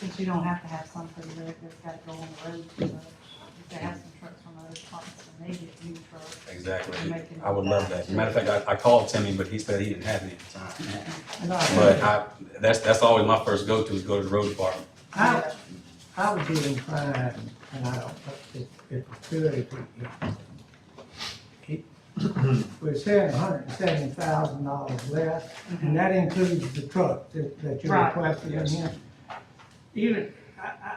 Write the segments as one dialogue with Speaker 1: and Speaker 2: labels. Speaker 1: But you don't have to have something that if it's gotta go on the road too much. If they have some trucks from other departments, and they get new trucks.
Speaker 2: Exactly. I would love that. Matter of fact, I, I called Timmy, but he said he didn't have any at the time.
Speaker 1: Mm-hmm.
Speaker 2: But I, that's, that's always my first go-to is go to the road department.
Speaker 3: I, I would be inclined, and I don't, if, if we could, if we, if- if we're saying hundred and seventy thousand dollars less, and that includes the truck that, that you
Speaker 1: Right.
Speaker 3: requested in
Speaker 2: Yes.
Speaker 3: here. Even, I, I,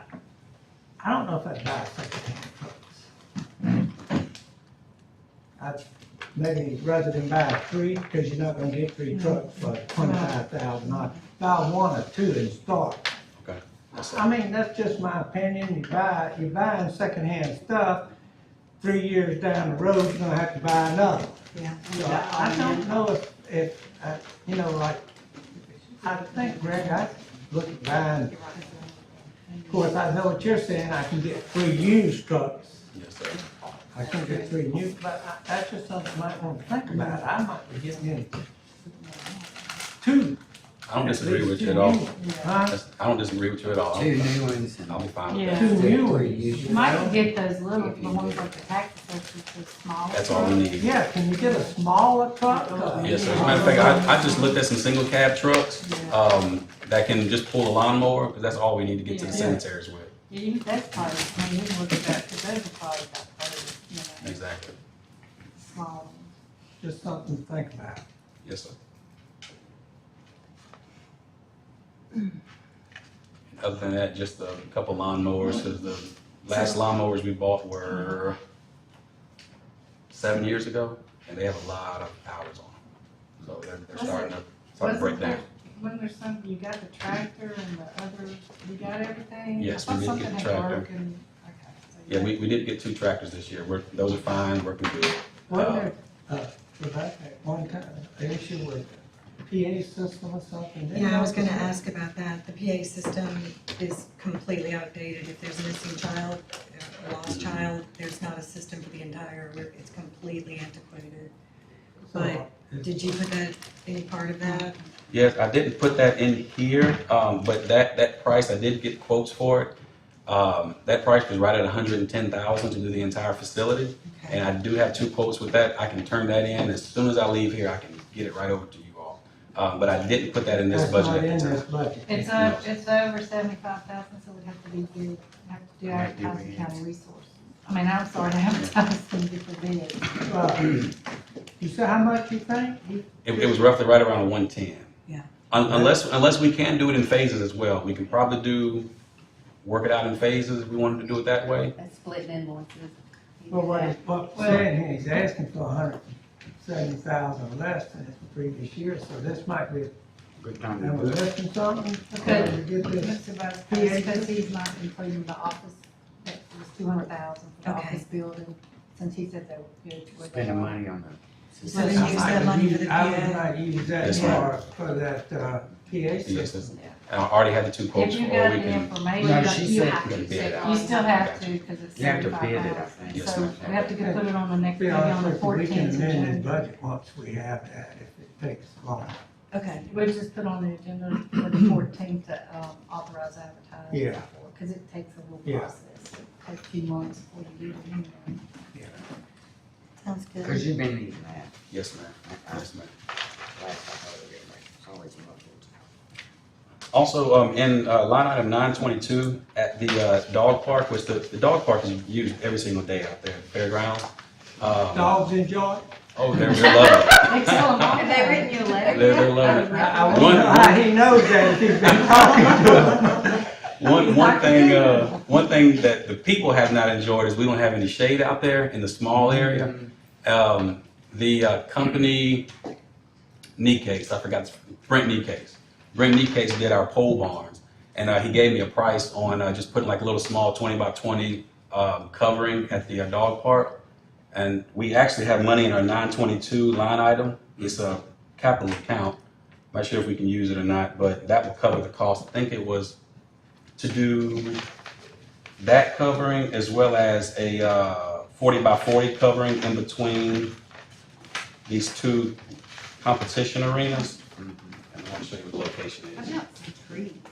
Speaker 3: I don't know if I'd buy a secondhand trucks. I'd maybe rather than buy three, cause you're not gonna get three trucks for twenty-five thousand dollars. Buy one or two and start
Speaker 2: That's all.
Speaker 3: I mean, that's just my opinion, you buy, you're buying secondhand stuff, three years down the road, you're gonna have to buy another.
Speaker 1: Yeah.
Speaker 3: So I, I don't know if, if, uh, you know, like, I think, Greg, I look at buying, of course, I know what you're saying, I can get three used trucks.
Speaker 2: Yes, sir.
Speaker 3: I can get three new, but I, that's just something I might wanna think about, I might be getting in two.
Speaker 2: I don't disagree with you at
Speaker 3: two
Speaker 2: all.
Speaker 3: new- Huh?
Speaker 2: That's- I don't disagree with you at all.
Speaker 4: Two new ones and
Speaker 2: I'll be fine with
Speaker 1: Yeah.
Speaker 2: that.
Speaker 3: Two new
Speaker 4: Three
Speaker 3: ones.
Speaker 4: used.
Speaker 1: You might can get those little, the ones like the tax assessors, the small.
Speaker 2: That's all we need.
Speaker 3: Yeah, can you get a smaller truck?
Speaker 2: Yes, sir. As a matter of fact, I, I just looked at some single cab trucks, um, that can just pull a lawnmower, because that's all we need to get to the
Speaker 1: Yeah.
Speaker 2: cemeteries with.
Speaker 1: Yeah, you- that's probably, I mean, you can look at that, cause those are probably about thirty, you know,
Speaker 2: Exactly.
Speaker 1: small.
Speaker 3: Just something to think about.
Speaker 2: Yes, sir. Other than that, just a couple lawnmowers, because the last lawnmowers we bought were seven years ago, and they have a lot of hours on them. So they're, they're starting to, starting to break
Speaker 1: Wasn't
Speaker 2: down.
Speaker 1: there, when there's something, you got the tractor and the other, you got everything?
Speaker 2: Yes,
Speaker 1: I thought
Speaker 2: we did get
Speaker 1: something
Speaker 2: the
Speaker 1: had
Speaker 2: tractor.
Speaker 1: broken. Okay, so you
Speaker 2: Yeah,
Speaker 1: got-
Speaker 2: we, we did get two tractors this year. We're, those are fine, working good. Um,
Speaker 3: Wasn't there, uh, Rebecca, at one time, an issue with PA system or something? Didn't
Speaker 5: Yeah, I was gonna ask about that. The PA system is completely outdated. If there's a missing child, a lost child, there's not a system for the entire, group. it's completely antiquated.
Speaker 3: So,
Speaker 5: But did you put that, any part of that?
Speaker 2: Yes, I didn't put that in here, um, but that, that price, I did get quotes for it. Um, that price was right at hundred and ten thousand to do the entire facility,
Speaker 5: Okay.
Speaker 2: and I do have two quotes with that, I can turn that in, as soon as I leave here, I can get it right over to you all. Um, but I didn't put that in this
Speaker 3: That's
Speaker 2: budget
Speaker 3: not
Speaker 2: at
Speaker 3: in
Speaker 2: the
Speaker 3: this
Speaker 2: time.
Speaker 3: budget.
Speaker 1: It's
Speaker 2: No.
Speaker 1: o it's over seventy-five thousand, so we have to be, we have to do
Speaker 4: Might do
Speaker 1: advertising
Speaker 4: it.
Speaker 1: county resource. I mean, I'm sorry, advertising different bids.
Speaker 3: Uh, You said how much you think? You-
Speaker 2: It, it was roughly right around one ten.
Speaker 5: Yeah.
Speaker 2: Un- unless, unless we can do it in phases as well, we can probably do, work it out in phases, if we wanted to do it that way.
Speaker 6: That's splitting invoices.
Speaker 3: Well, what he's, what he's saying here, he's asking for a hundred and seventy thousand less than the previous year, so this might be,
Speaker 4: good time to
Speaker 3: am I
Speaker 4: do it.
Speaker 3: missing something?
Speaker 1: Okay.
Speaker 3: Did we Get this,
Speaker 1: Mr. Vice because he's not including the office, that was two hundred thousand for the
Speaker 5: Okay.
Speaker 1: office building, since he said they were good. with it.
Speaker 4: Spending money on the
Speaker 5: So
Speaker 4: system.
Speaker 5: then use that money for the
Speaker 3: I would
Speaker 5: PA.
Speaker 3: not use that
Speaker 2: That's
Speaker 3: for, for that, uh, PA
Speaker 2: Yes,
Speaker 3: system.
Speaker 2: that's- I already had the two
Speaker 1: If
Speaker 2: quotes, or we
Speaker 1: you got the
Speaker 2: can
Speaker 1: information,
Speaker 4: No,
Speaker 1: but
Speaker 4: she
Speaker 1: you
Speaker 4: said-
Speaker 1: have,
Speaker 2: we can bid it out.
Speaker 1: you still have to, because it's
Speaker 4: You have to
Speaker 1: seventy-five
Speaker 4: bid it, I
Speaker 1: thousand.
Speaker 4: think.
Speaker 2: Yes,
Speaker 1: So
Speaker 2: ma'am.
Speaker 1: we have to get, put it on the next,
Speaker 3: Be
Speaker 1: maybe on
Speaker 3: honest
Speaker 1: the
Speaker 3: with you, we can
Speaker 1: fourteenth of
Speaker 3: amend the
Speaker 1: June.
Speaker 3: budget once we have that, if it takes long.
Speaker 5: Okay,
Speaker 1: We just put on the agenda for the fourteenth to, um, authorize advertising.
Speaker 3: Yeah.
Speaker 1: Because it takes a little
Speaker 3: Yeah.
Speaker 1: process, it takes a few months before you do it anyway.
Speaker 5: sounds good.
Speaker 4: Cause you've been needing that.
Speaker 2: Yes, ma'am.
Speaker 4: I- I-
Speaker 2: Yes, ma'am.
Speaker 4: last I heard of it, like, it's always muffled.
Speaker 2: Also, um, in, uh, line item nine twenty-two, at the, uh, dog park, which the, the dog park is used every single day out there, at the fairground. Um,
Speaker 3: Dogs enjoy? it?
Speaker 2: oh, they're, they're loving it.
Speaker 1: They tell them all.
Speaker 6: Have they written you a letter?
Speaker 2: They're, they're loving
Speaker 3: I, I
Speaker 2: One-
Speaker 3: wonder how he knows that if he's been talking to him.
Speaker 2: it. One, one thing, uh, one thing that the people have not enjoyed is we don't have any shade out there in the small area. um, the uh, company knee case, I forgot, Brent knee case. Brent knee case did our pole barns, and uh, he gave me a price on uh, just putting like a little small 20 by 20 um, covering at the uh, dog park. And we actually have money in our 922 line item. It's a capital account. Not sure if we can use it or not, but that will cover the cost. I think it was to do that covering as well as a uh, 40 by 40 covering in between these two competition arenas. And I'll show you what the location
Speaker 6: I've
Speaker 2: is.
Speaker 6: got some trees.